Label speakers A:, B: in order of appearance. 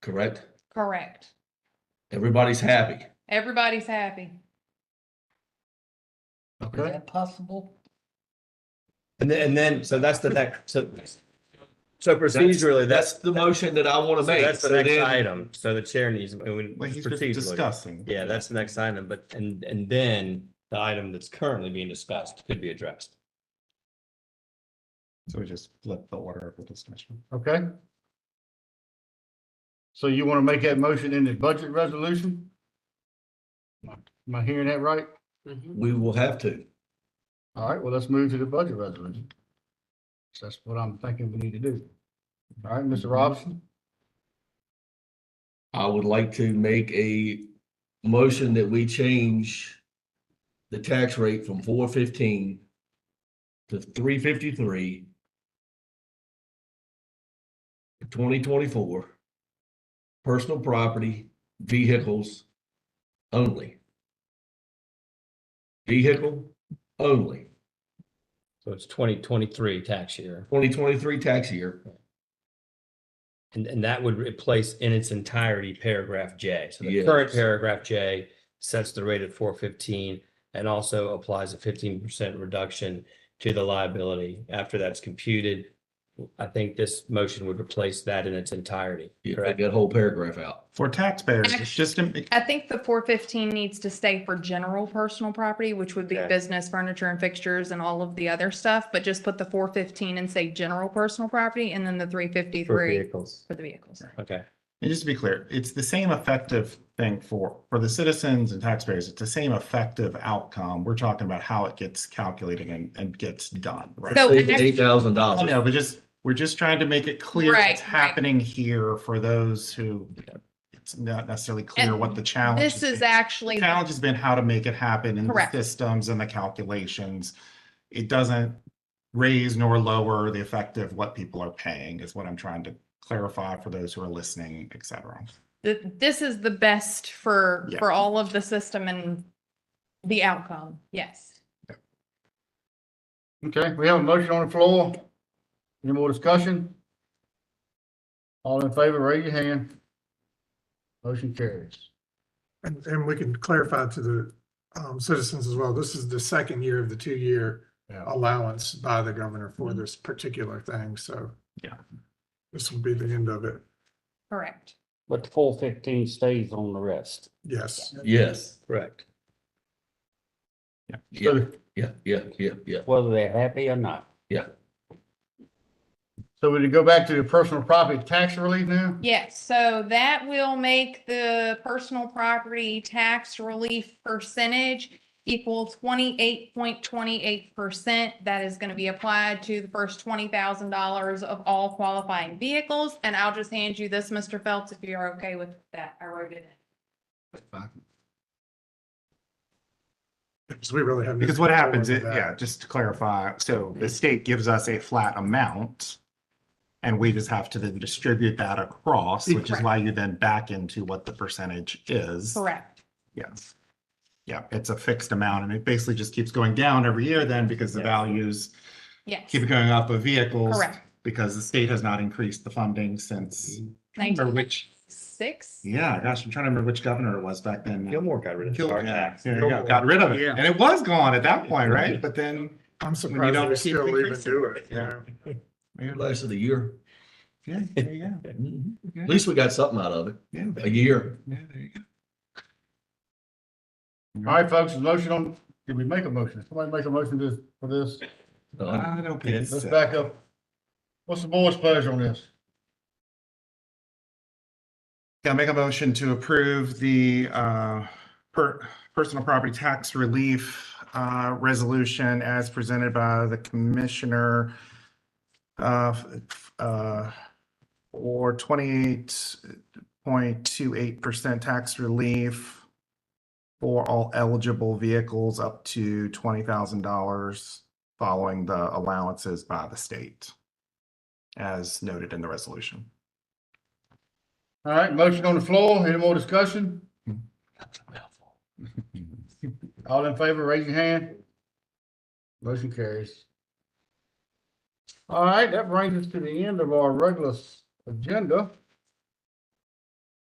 A: correct?
B: Correct.
A: Everybody's happy.
B: Everybody's happy.
C: Is
A: Okay.
C: that possible?
D: And then, and then, so that's the next, so. So procedurally,
A: That's
D: that's,
A: the motion that I want to
D: so
A: make.
D: that's the
A: So
D: next
A: then-
D: item. So the chair needs, I mean,
E: Well, he's just
D: procedurally.
E: discussing.
D: Yeah, that's the next item, but, and, and then the item that's currently being discussed could be addressed.
E: So we just flip the order of the discussion.
C: Okay. So you want to make that motion in the budget resolution? Am I hearing that right?
A: We will have to.
C: All right, well, let's move to the budget resolution. So That's what I'm thinking we need to do. All right, Mr. Robinson,
A: I would like to make a motion that we change the tax rate from four fifteen to three fifty-three twenty twenty-four, personal property, vehicles only. Vehicle only,
D: So it's twenty twenty-three tax year.
A: twenty twenty-three tax year.
D: And, and that would replace in its entirety paragraph J. So the
A: Yes.
D: current paragraph J sets the rate at four fifteen and also applies a fifteen percent reduction to the liability after that's computed. I think this motion would replace that in its entirety.
A: Yeah, take
D: Correct.
A: that whole paragraph out.
E: For taxpayers, it's just, im-
B: I think the four fifteen needs to stay for general personal property, which would be
D: Okay.
B: business, furniture and fixtures and all of the other stuff, but just put the four fifteen and say general personal property and then the three
D: For
B: fifty-three
D: vehicles.
B: for the vehicles.
D: Okay.
E: and just to be clear, it's the same effective thing for, for the citizens and taxpayers. It's the same effective outcome. We're talking about how it gets calculated and, and gets done, right?
B: So-
A: Save eight thousand
E: I
A: dollars.
E: know, but just, we're just trying to make it clear
B: Right,
E: what's
B: right.
E: happening here for those who it's not necessarily clear
B: And
E: what the challenge.
B: This
E: is.
B: is actually,
E: challenge has been how to make it happen in the
B: Correct.
E: systems and the calculations. It doesn't raise nor lower the effective what people are paying is what I'm trying to clarify for those who are listening, et cetera.
B: th- this is the best for,
E: Yeah.
B: for all of the system and the outcome. Yes.
C: okay, we have a motion on the floor. Any more discussion? All in favor, raise your hand. Motion carries.
F: And, and we can clarify to the um, citizens as well, this is the second year of the two-year
C: Yeah.
F: allowance by the governor for this particular thing, so.
E: Yeah.
F: This will be the end of it,
B: Correct.
G: But the full fifteen stays on the rest.
F: yes.
A: Yes,
D: Correct.
A: yeah, yeah, yeah, yeah, yeah.
G: Whether they're happy or not,
C: So we go back to the personal property tax relief now?
B: Yes, so that will make the personal property tax relief percentage equal twenty-eight point twenty-eight percent. That is gonna be applied to the first twenty thousand dollars of all qualifying vehicles. And I'll just hand you this, Mr. Phelps, if you're okay with that. I wrote it
F: Because we really have.
E: Because what happens,
F: is
E: it- yeah, just to clarify, so the state gives us a flat amount and we just have to then distribute that across, which is
B: Correct.
E: why you then back into what the percentage is.
B: in. Correct.
E: Yes. Yeah, it's a fixed amount and it basically just keeps going down every year then because the values
B: Yes,
E: keep it going up of vehicles.
B: correct.
E: Because the state has not increased the funding since, I can't remember which,
B: Six?
E: yeah, gosh, I'm trying to remember which governor it was back then.
D: Gilmore got rid of the
E: Gilmore,
D: car
E: yeah,
D: tax.
E: there you go, got rid of it.
C: Yeah.
E: And it was gone at that point, right? But then.
F: I'm
E: when you
F: surprised
E: don't
F: they
E: keep
F: still even
E: increasing
F: do it, you
E: Yeah.
F: know?
A: Last of the year.
E: Yeah, there you go.
A: At least we got something out of it,
E: Yeah,
A: a year.
E: yeah, there you go.
C: All right, folks, motion on, did we make a motion? Somebody make a motion to, for this?
A: Uh,
E: I don't think
C: Let's
E: so.
C: back up. What's the board's pleasure on this?
E: Yeah, I'll make a motion to approve the uh, per- personal property tax relief uh, resolution as presented by the commissioner uh, f- uh, for 28.28% tax relief for all eligible vehicles up to $20,000 following the allowances by the state, as noted in the resolution.
C: All right, motion on the floor, any more discussion? All in favor, raise your hand. Motion carries. All right, that brings us to the end of our regular s- agenda.